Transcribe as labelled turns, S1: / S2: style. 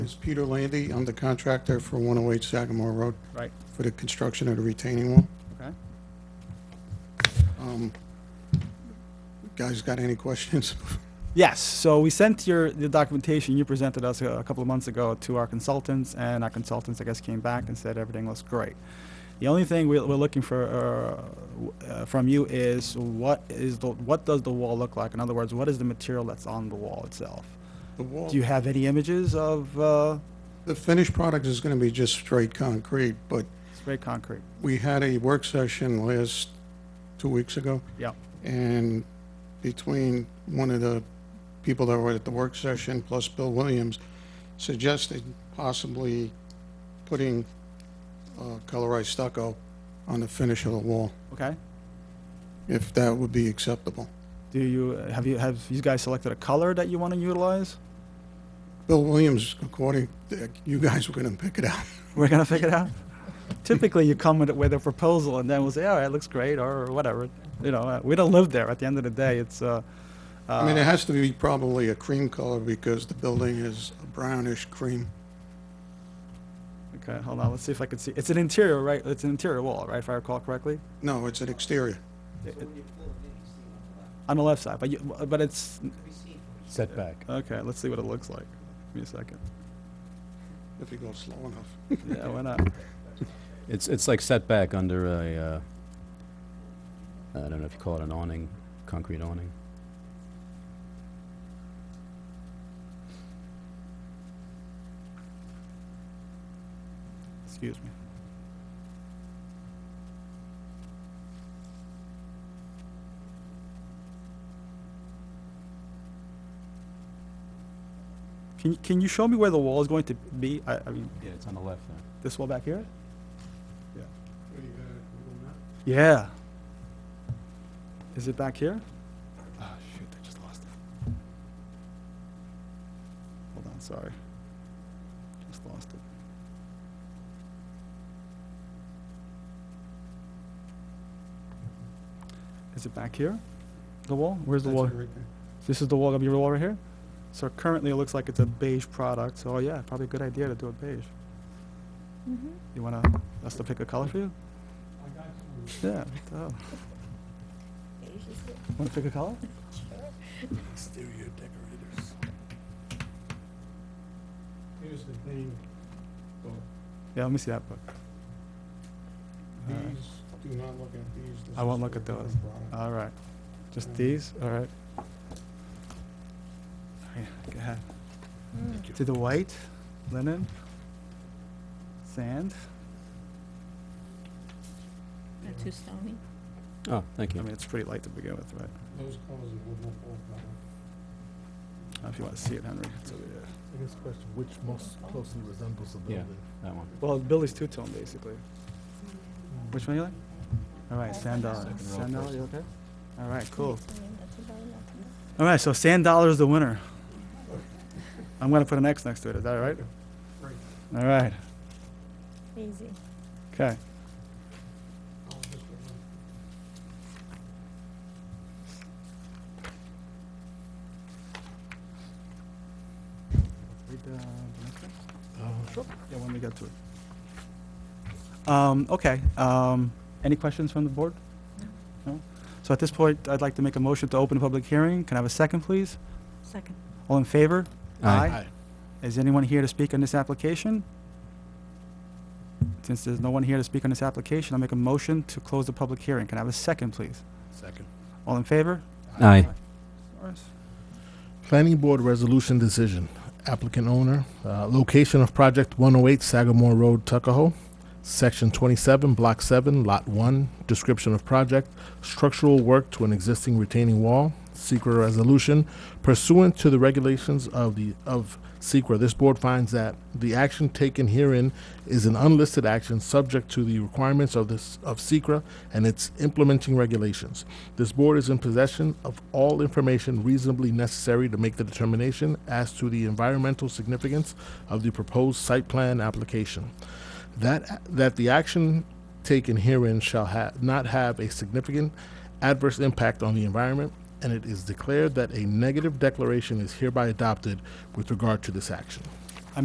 S1: is Peter Landy. I'm the contractor for 108 Sagamore Road
S2: Right,
S1: for the construction of the retaining wall.
S2: okay.
S1: Um, Guys, got any questions?
S2: Yes, so we sent your, the documentation you presented us a a couple of months ago to our consultants, and our consultants, I guess, came back and said everything looks great. The only thing we're, we're looking for, uh, w- uh, from you is what is the, what does the wall look like? In other words, what is the material that's on the wall itself?
S1: The wall,
S2: Do you have any images of, uh,
S1: the finished product is going to be just straight concrete, but
S2: spray concrete?
S1: we had a work session last, two weeks ago,
S2: Yeah,
S1: and between one of the people that were at the work session plus Bill Williams suggested possibly putting uh, colorized stucco on the finish of the wall,
S2: okay.
S1: if that would be acceptable.
S2: Do you, have you, have you guys selected a color that you want to utilize?
S1: Bill Williams, according, you guys were going to pick it out.
S2: We're gonna figure it out. Typically, you come with, with a proposal, and then we'll say, "All right, looks great," or whatever. You know, uh, we don't live there. At the end of the day, it's. Uh, uh,
S1: I mean, it has to be probably a cream color because the building is a brownish cream.
S2: okay, hold on. Let's see if I can see. It's an interior, right? It's an interior wall, right? If I recall correctly,
S1: No, it's an exterior.
S2: It- it- on the left side. But you, but it's
S3: setback.
S2: okay. Let's see what it looks like. Give me a second.
S1: If you go slow enough.
S2: Yeah, why not?
S3: It's, it's like setback under a, uh, I don't know if you call it an awning, concrete awning.
S2: Excuse me. Can, you- can you show me where the wall is going to be? I, I mean,
S3: Yeah, it's on the left there.
S2: this wall back here? Yeah. Is it back here? Ah, shoot, I just lost it. Hold on, sorry. Just lost it. Is it back here? The wall? Where's the wall? This is the wall of your wall right here? So currently it looks like it's a beige product, so yeah, probably a good idea to do it beige. You wanna, us to pick a color for you? Yeah. what the hell. Wanna pick a color?
S4: Exterior decorators.
S1: Here's the thing,
S2: Yeah, let me see that book.
S1: these, do not look at these. This
S2: I won't
S1: is
S2: look
S1: the
S2: at those.
S1: finished
S4: Uh,
S1: product.
S2: All right. Just
S1: Mm.
S2: these? All right. Okay, Go ahead.
S5: Mm,
S4: Thank you.
S2: To the white, linen, sand.
S5: Not too stony.
S3: Oh, thank
S2: I
S3: you.
S2: mean, it's pretty light to begin with, right?
S1: Those colors would not work that way.
S2: Uh, If you wanna see it, Henry, it's over there.
S4: I guess question, which most closely resembles the
S3: Yeah.
S4: building?
S3: That one.
S2: Well, Billy's two-tone, basically. Which one you like? All right, sand dollar.
S3: Second row
S2: Sand dollar,
S3: first.
S2: you okay? All right, cool. All right, so sand dollar is the winner. I'm gonna put an X next to it, is that all right?
S1: Right.
S2: All right,
S5: Easy.
S2: okay.
S1: Oh, this one.
S2: Read the, the next one?
S4: Uh, sure.
S2: Yeah, when we get to it. Um, okay, um, any questions from the board? No? So at this point, I'd like to make a motion to open a public hearing. Can I have a second, please?
S5: Second.
S2: All in favor?
S3: Aye.
S4: Aye.
S2: Is anyone here to speak on this application? Since there's no one here to speak on this application, I'll make a motion to close the public hearing. Can I have a second, please?
S4: Second.
S2: All in favor?
S3: Aye.
S2: Morris?
S4: Planning Board Resolution Decision, applicant owner, uh, location of project one oh eight Sagamore Road, Tuckahoe. Section twenty-seven, block seven, lot one, description of project, structural work to an existing retaining wall. Secret resolution pursuant to the regulations of the, of SECR, this board finds that the action taken herein is an unlisted action subject to the requirements of this, of SECR and its implementing regulations. This board is in possession of all information reasonably necessary to make the determination as to the environmental significance of the proposed site plan application. That, that the action taken herein shall ha- not have a significant adverse impact on the environment, and it is declared that a negative declaration is hereby adopted with regard to this action.